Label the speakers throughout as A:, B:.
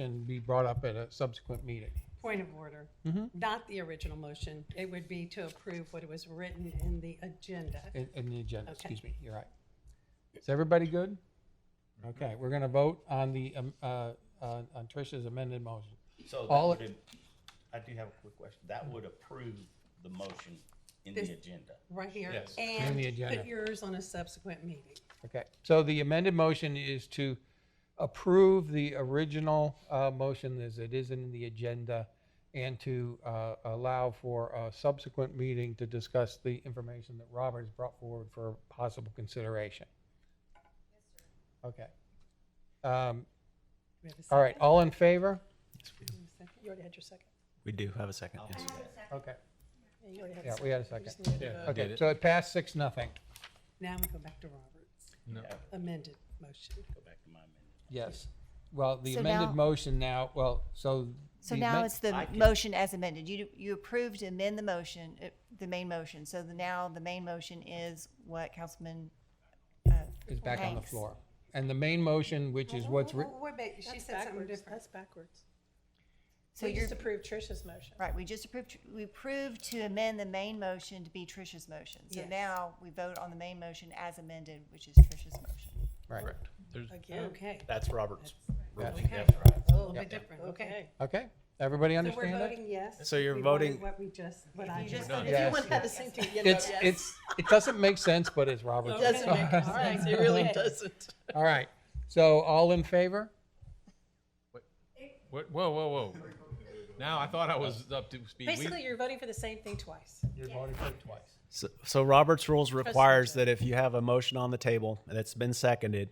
A: and be brought up at a subsequent meeting.
B: Point of order. Not the original motion. It would be to approve what was written in the agenda.
A: In, in the agenda,
B: Okay.
A: excuse me, you're right. Is everybody good? Okay, we're gonna vote on the, um, uh, on on Trish's amended motion.
C: So that
A: All-
C: would, have- I do have a quick question. That would approve the motion in the
B: This-
C: agenda.
B: Right here.
A: Yes, in
B: And
A: the agenda.
B: put yours on a subsequent meeting.
A: Okay, so the amended motion is to approve the original uh, motion as it is in the agenda and to uh, allow for a subsequent meeting to discuss the information that Robert has brought forward for possible consideration. Okay. Um,
B: Do we have a second?
A: All right, all in favor?
B: Second? You already had your second.
D: We do have a second, yes.
A: Okay,
B: Yeah, you already had a
A: yeah, we had a
B: You
A: second.
B: just needed to vote.
A: Okay, so it passed six, nothing.
B: Now we go back to Robert's
C: No.
B: amended motion.
C: Go back to my amendment.
A: Yes. Well, the
E: So
A: amended
E: now-
A: motion now, well, so.
E: So
A: the
E: now
A: amen-
E: it's the
C: I can-
E: motion as amended. You, you approved to amend the motion, uh, the main motion. So the, now the main motion is what Councilman, uh,
A: Is back on the
E: Hanks.
A: floor. And the main motion, which is what's written.
B: Wait, a minute, she said something different.
F: That's backwards.
E: so
F: We
E: you're,
F: just approved Trish's motion.
E: right, we just approved, we approved to amend the main motion to be Trish's motion. So
B: Yes.
E: now we vote on the main motion as amended, which is Trish's motion.
A: Right.
F: Again,
B: Okay,
D: That's Robert's.
B: okay. A little bit different, okay.
F: okay.
A: Okay, everybody
B: So we're
A: understand it?
B: voting yes?
D: So you're
B: We voted
D: voting-
B: What we just, what I
E: You just
B: just.
E: voted
A: Yes.
F: Everyone had the same thing. you know,
A: It's,
F: yes.
A: it's, it doesn't make sense, but it's Robert's.
F: It Doesn't make
A: rules.
F: sense. It really doesn't.
A: All right, so all in favor?
G: What? Whoa, whoa, whoa. Now I thought I was up to speed. We-
F: Basically, you're voting for the same thing twice.
A: You're voting for it twice.
D: So, so Robert's rules requires that if you have a motion on the table that's been seconded,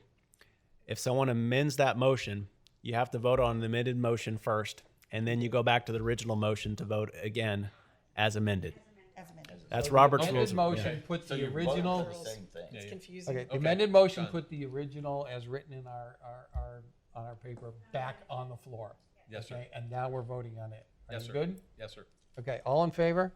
D: if someone amends that motion, you have to vote on the amended motion first, and then you go back to the original motion to vote again as amended.
E: As amended.
D: That's Robert's rules.
A: Amended
D: of-
A: motion put
C: So
A: the
C: you're voting
A: original,
C: for the Same thing.
F: It's confusing.
A: okay, the amended motion put the original as written in our, our, our, on our paper back on the floor.
G: Yes, sir.
A: Okay, And now we're voting on it. Are
G: Yes,
A: you
G: sir.
A: Good?
G: Yes, sir.
A: Okay, all in favor?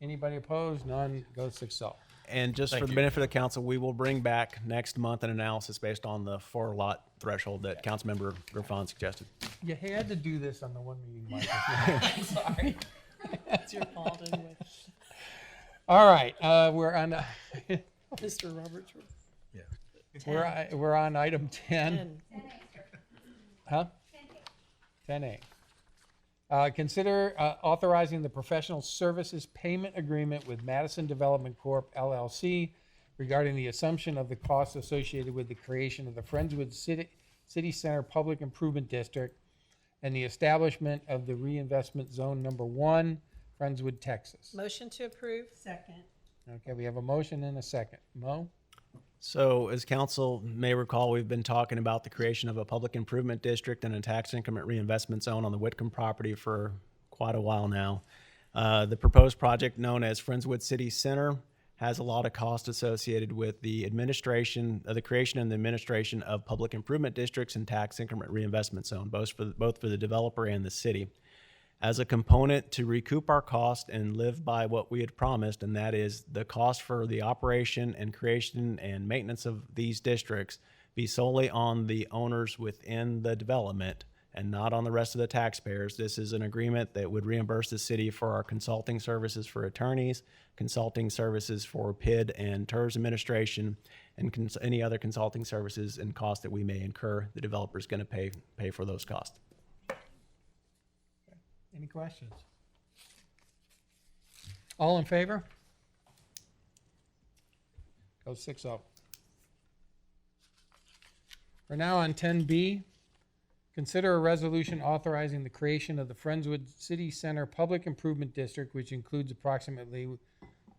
A: Anybody opposed? None, goes six oh.
D: And just for the benefit of the council, we will bring back next month an analysis based on the four lot threshold that Councilmember Griffon suggested.
A: You had to do this on the one meeting, Michael.
F: It's your fault anyway.
A: All right, uh, we're on,
F: Mr. Roberts. rule.
A: we're, i- we're on item ten,
F: And
A: huh? Ten A. Uh, consider uh, authorizing the professional services payment agreement with Madison Development Corp. LLC regarding the assumption of the costs associated with the creation of the Friendswood City, City Center Public Improvement District and the establishment of the reinvestment zone number one, Friendswood, Texas.
F: Motion to approve?
B: Second.
A: Okay, we have a motion and a second. Mo?
D: So, as council may recall, we've been talking about the creation of a public improvement district and a tax increment reinvestment zone on the Whitcomb property for quite a while now. Uh, the proposed project, known as Friendswood City Center, has a lot of cost associated with the administration, uh, the creation and the administration of public improvement districts and tax increment reinvestment zone, both for both for the developer and the city as a component to recoup our cost and live by what we had promised, and that is the cost for the operation and creation and maintenance of these districts be solely on the owners within the development and not on the rest of the taxpayers. This is an agreement that would reimburse the city for our consulting services for attorneys, consulting services for PID and TERS administration, and cons- any other consulting services and costs that we may incur. The developer is going to pay pay for those costs.
A: Any questions? All in favor? Go six oh. We're now on ten B. Consider a resolution authorizing the creation of the Friendswood City Center Public Improvement District, which includes approximately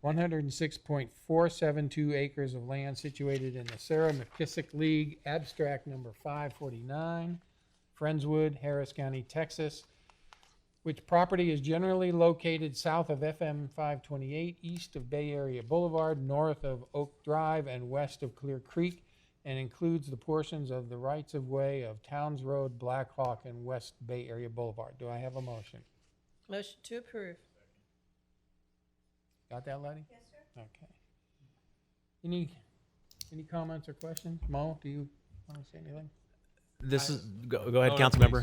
A: one hundred and six point four seven two acres of land situated in the Sarah McKissick League, abstract number five forty-nine, Friendswood, Harris County, Texas, which property is generally located south of FM 528, east of Bay Area Boulevard, north of Oak Drive, and west of Clear Creek, and includes the portions of the rights of way of Towns Road, Black Hawk, and West Bay Area Boulevard. Do I have a motion?
F: Motion to approve.
A: Got that, Letty? Yes, sir. Okay. Any, any comments or questions? Mo, do you want to say anything?
D: This is, go, go ahead,
G: Oh, no,
D: council member.